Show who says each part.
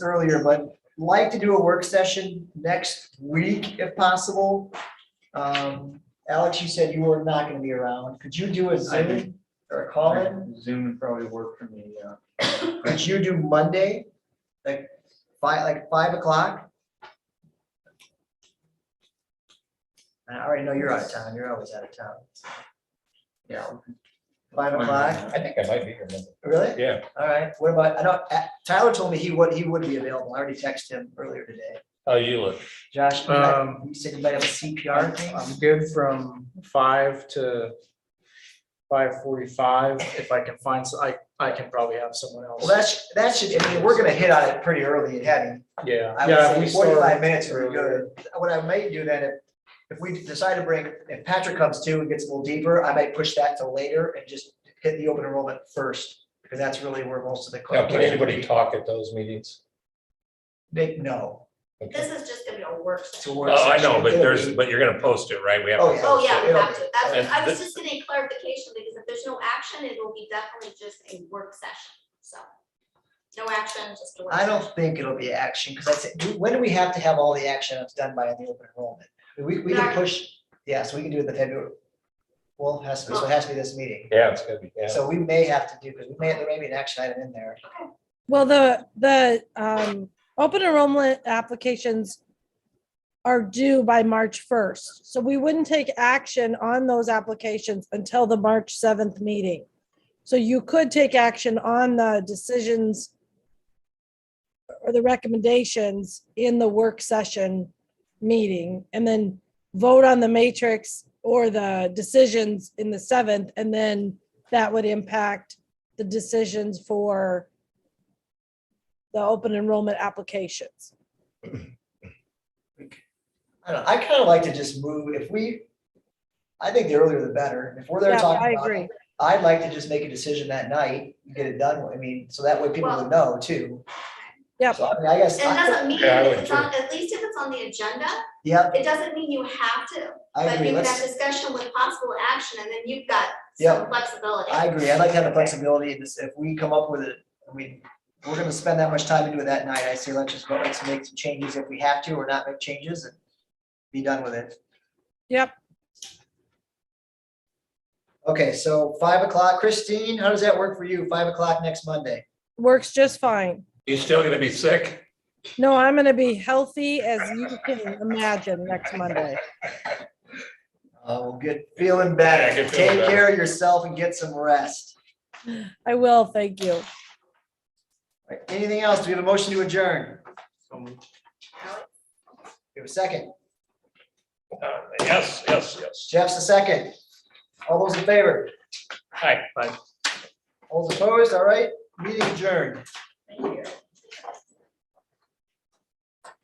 Speaker 1: earlier, but like to do a work session next week if possible. Um, Alex, you said you were not gonna be around. Could you do a
Speaker 2: I
Speaker 1: Zoom or a call in?
Speaker 2: Zoom would probably work for me, yeah.
Speaker 1: Could you do Monday? Like five, like five o'clock? I already know you're out of town. You're always out of town.
Speaker 2: Yeah.
Speaker 1: Five o'clock,
Speaker 3: I think I might be here. Monday.
Speaker 1: really?
Speaker 3: Yeah,
Speaker 1: All right, what about, I know uh, Tyler told me he would, he would be available. I already texted him earlier today.
Speaker 3: how you look?
Speaker 1: Josh, you might-
Speaker 4: Um,
Speaker 1: you said you might have a CPR thing?
Speaker 4: I'm good from five to five forty-five. If I can find, s- I, I can probably have someone
Speaker 1: Well,
Speaker 4: else.
Speaker 1: that's, that should, I mean, we're gonna hit on it pretty early and heavy.
Speaker 4: Yeah,
Speaker 1: I
Speaker 4: yeah. we
Speaker 1: would say forty-five
Speaker 4: start
Speaker 1: minutes would be
Speaker 4: earlier.
Speaker 1: good. What I may do then, if, if we decide to bring, if Patrick comes too and gets a little deeper, I might push that to later and just hit the open enrollment first, because that's really where most of the.
Speaker 3: Now, can
Speaker 1: conversation would
Speaker 3: anybody
Speaker 1: be.
Speaker 3: talk at those meetings?
Speaker 1: They, no.
Speaker 3: Okay.
Speaker 5: This is just gonna be a work
Speaker 1: it's
Speaker 5: session.
Speaker 1: a work
Speaker 6: Oh, I know,
Speaker 1: session.
Speaker 6: but
Speaker 1: It'll
Speaker 6: there's,
Speaker 1: be-
Speaker 6: but you're gonna post it, right? We have
Speaker 1: Oh,
Speaker 6: to
Speaker 1: yeah.
Speaker 5: Oh,
Speaker 6: post
Speaker 5: yeah, we
Speaker 6: it.
Speaker 1: It'll
Speaker 5: have to. That's, I was
Speaker 6: That's-
Speaker 5: just getting clarification because if there's no action, it will be definitely just a work session, so. No action, just a work.
Speaker 1: I
Speaker 5: session.
Speaker 1: don't think it'll be action, because that's, do- when do we have to have all the action that's done by the open enrollment? We, we can
Speaker 5: Right.
Speaker 1: push, yeah, so we can do it the February. Well, it has to, be- so it has to be this meeting.
Speaker 3: Yeah, it's gonna be, yeah.
Speaker 1: So we may have to do, because we may, there may be an action item in there.
Speaker 7: Well, the, the um, open enrollment applications are due by March 1st. So we wouldn't take action on those applications until the March 7th meeting. So you could take action on the decisions or the recommendations in the work session meeting and then vote on the matrix or the decisions in the 7th. And then that would impact the decisions for the open enrollment applications.
Speaker 1: I don't know, I kind of like to just move, if we, I think the earlier the better, if we're there
Speaker 7: Yeah, I
Speaker 1: talking about
Speaker 7: agree.
Speaker 1: it, I'd like to just make a decision that night, get it done, I mean, so that way people would know too.
Speaker 7: Yep.
Speaker 1: So I mean, I guess,
Speaker 5: It doesn't mean,
Speaker 3: Yeah, I would
Speaker 5: if it's on, at least if it's on the agenda,
Speaker 1: yep,
Speaker 5: it doesn't mean you have to.
Speaker 1: I
Speaker 5: But
Speaker 1: agree,
Speaker 5: you can have
Speaker 1: let's,
Speaker 5: discussion with possible action and then you've got
Speaker 1: Yeah.
Speaker 5: some flexibility.
Speaker 1: I agree, I'd like to have the flexibility, in this, if we come up with it, I mean, we're gonna spend that much time into it that night, I say, let's just go, let's make some changes if we have to, or not make changes and be done with it.
Speaker 7: Yep.
Speaker 1: Okay, so five o'clock, Christine, how does that work for you, five o'clock next Monday?
Speaker 7: Works just fine.
Speaker 6: You still gonna be sick?
Speaker 7: No, I'm gonna be healthy as you can imagine next Monday.
Speaker 1: Oh, good, feeling better.
Speaker 3: Yeah, good feeling
Speaker 1: Take
Speaker 3: better.
Speaker 1: care of yourself and get some rest.
Speaker 7: I will, thank you.
Speaker 1: All right, Anything else? Do we have a motion to adjourn? Do
Speaker 4: Um,
Speaker 1: we have a second?
Speaker 6: Uh, Yes, yes, yes.
Speaker 1: Jeff's a second. All those in favor?
Speaker 6: Hi.
Speaker 1: All those opposed? All right, meeting adjourned.
Speaker 5: Thank you.